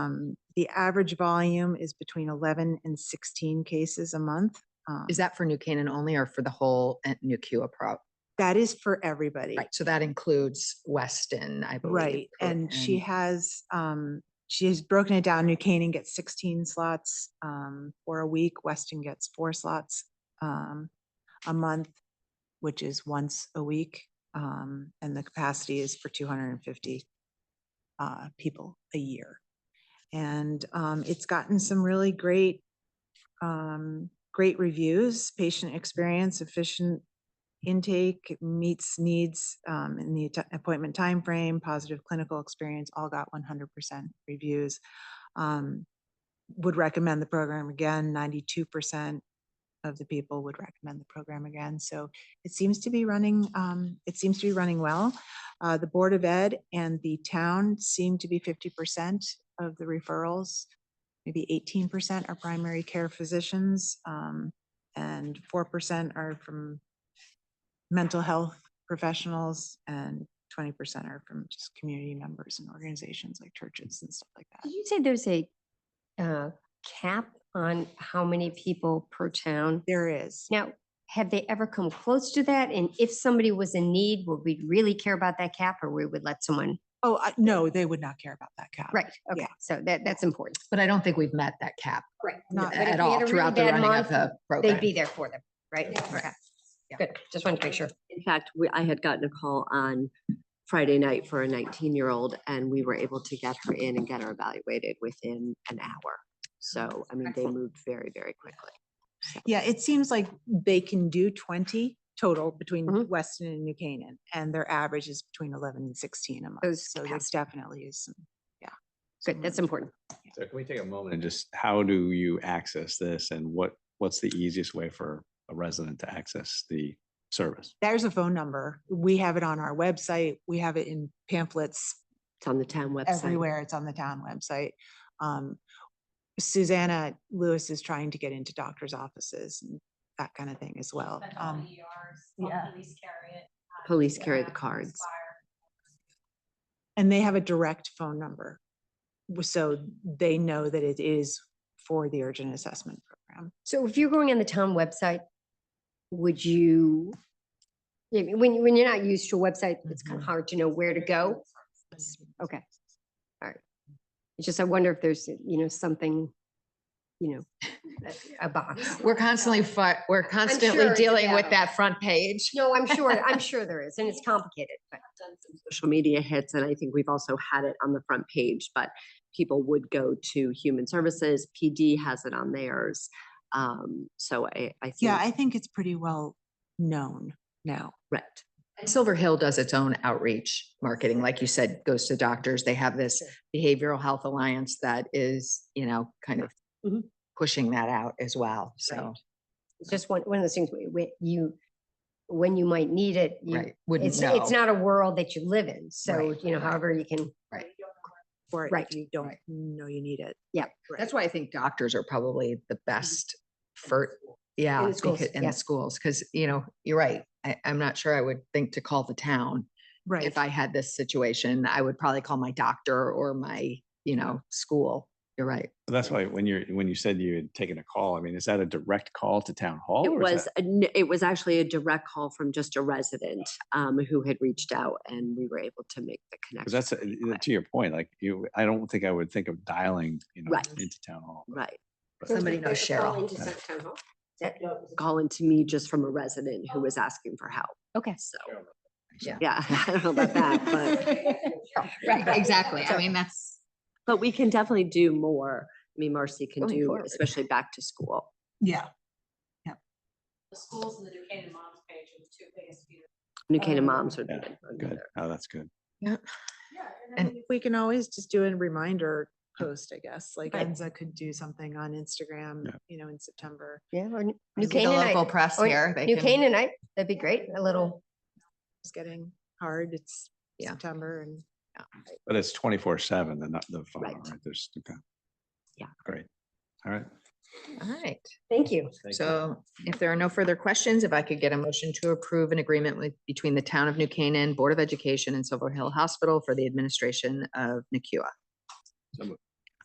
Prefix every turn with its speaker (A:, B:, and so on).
A: Um, the average volume is between eleven and sixteen cases a month. Um,
B: Is that for New Canaan only or for the whole uh, New Kua prop?
A: That is for everybody.
B: Right, so that includes Weston, I believe.
A: Right,
B: correct?
A: and she has, um, she has broken it down, New Canaan gets sixteen slots, um, for a week, Weston gets four slots, um, a month, which is once a week, um, and the capacity is for two hundred and fifty uh, people a year. And, um, it's gotten some really great, um, great reviews, patient experience, efficient intake meets needs um, in the atti- appointment timeframe, positive clinical experience, all got one hundred percent reviews. Um, Would recommend the program again, ninety-two percent of the people would recommend the program again. So it seems to be running, um, it seems to be running well. Uh, The Board of Ed and the town seem to be fifty percent of the referrals. Maybe eighteen percent are primary care physicians, um, and four percent are from mental health professionals and twenty percent are from just community members and organizations like churches and stuff like that.
C: Did you say there's a uh, cap on how many people per town?
A: There is.
C: Now, have they ever come close to that? And if somebody was in need, would we really care about that cap or we would let someone?
A: Oh, I, no, they would not care about that cap.
C: Right,
A: Yeah.
C: okay, so that, that's important.
B: But I don't think we've met that cap
C: Right.
A: Not-
C: but if
B: at
C: we had a
B: all
C: really
B: throughout the
C: bad
B: running of
C: month,
B: the program.
C: They'd be there for them, right? Okay. Good, just wanted to make sure.
D: In fact, we, I had gotten a call on Friday night for a nineteen-year-old and we were able to get her in and get her evaluated within an hour. So, I mean, they
C: Excellent.
D: moved very, very quickly.
A: Yeah, it seems like they can do twenty total between
C: Mm-hmm.
D: Mhm.
A: Weston and New Canaan, and their average is between eleven and sixteen a month.
C: Those
A: So there's
C: capacities.
A: definitely is some, yeah.
C: Good, that's important.
E: So can we take a moment and just, how do you access this and what, what's the easiest way for a resident to access the service?
A: There's a phone number. We have it on our website. We have it in pamphlets
D: It's on the town website.
A: everywhere. It's on the town website. Um, Susanna Lewis is trying to get into doctor's offices and that kind of thing as well.
F: Mental
A: Um,
F: ERs,
A: yeah.
F: police carry it. um,
D: Police carry the
F: ambulance,
D: cards.
F: fire.
A: and they have a direct phone number. w- So they know that it is for the urgent assessment program.
C: So if you're going on the town website, would you, yeah, when, you- when you're not used to a website, it's
B: Mm-hmm.
C: kind of hard to know where to go. Okay. It's just, I wonder if there's, you know, something, you know, a a box.
B: We're constantly, fi- we're
C: sure
B: constantly
C: it's
B: dealing with
C: available.
B: that front page.
C: No, I'm sure, I'm sure there is, and it's complicated, but
D: done some Social media hits, and I think we've also had it on the front page, but people would go to Human Services, PD has it on theirs. Um, so I, I think.
A: Yeah, I think it's pretty well known now.
D: Right.
B: And Silver Hill does its own outreach marketing, like you said, goes to doctors. They have this Behavioral Health Alliance that is, you know, kind of
C: Mhm.
B: pushing that out as well, so,
C: it's just one, one of those things where where you, when you might need it, you,
B: right, wouldn't
C: it's,
B: know.
C: it's not a world that you live in, so,
B: Right,
C: you know,
B: right.
C: however you can.
A: Or if
C: Right,
A: you don't
B: right.
A: know you need it.
C: Yeah,
A: Right.
B: That's why I think doctors are probably the best for, yeah,
C: the
B: because-
C: schools,
B: in
C: yeah.
B: the schools, because, you know, you're right. I, I'm not sure I would think to call the town.
A: Right.
B: If I had this situation, I would probably call my doctor or my, you know, school. You're right.
E: That's why when you're, when you said you had taken a call, I mean, is that a direct call to town hall?
D: It
E: or is
D: was, a n- it was actually a direct call from just a resident um, who had reached out and we were able to make the
E: Because
D: connection.
E: that's, uh, uh, to your point, like you, I don't think I would think of dialing, you know,
D: Right.
E: into town hall. but-
D: Right.
E: but-
B: Somebody knows Cheryl.
D: Calling to me just from a resident who was asking for help.
C: Okay.
D: So,
B: Yeah.
D: yeah, I don't know about that, but,
B: Right, exactly. I mean, that's.
D: but we can definitely do more. I mean, Marcy can
C: Going
D: do,
C: forward.
D: especially back to school.
A: Yeah.
F: The schools and the New Canaan Moms page are the two biggest. feeders.
D: New
A: Oh.
D: Canaan moms would be.
E: Yeah,
D: good one
E: Good.
D: there.
E: Oh, that's good.
B: And-
A: We can always just do a reminder post, I guess, like
C: Right.
A: Enza could do something on Instagram,
E: Yeah.
A: you know, in September.
C: Yeah, or New
B: the Local
C: Canaanite,
B: press
C: or
B: here. they
C: New
B: can-
C: Canaanite, that'd be great, a little,
A: It's getting hard. It's
B: Yeah.
A: September and
E: But it's twenty-four seven, the, nu- the phone,
D: Right.
E: right? There's, okay.
D: Yeah.
E: Great. All right.
B: All right.
C: thank you.
E: Thank you.
B: So if there are no further questions, if I could get a motion to approve an agreement with, between the Town of New Canaan Board of Education and Silver Hill Hospital for the administration of NACUA.
E: So moved.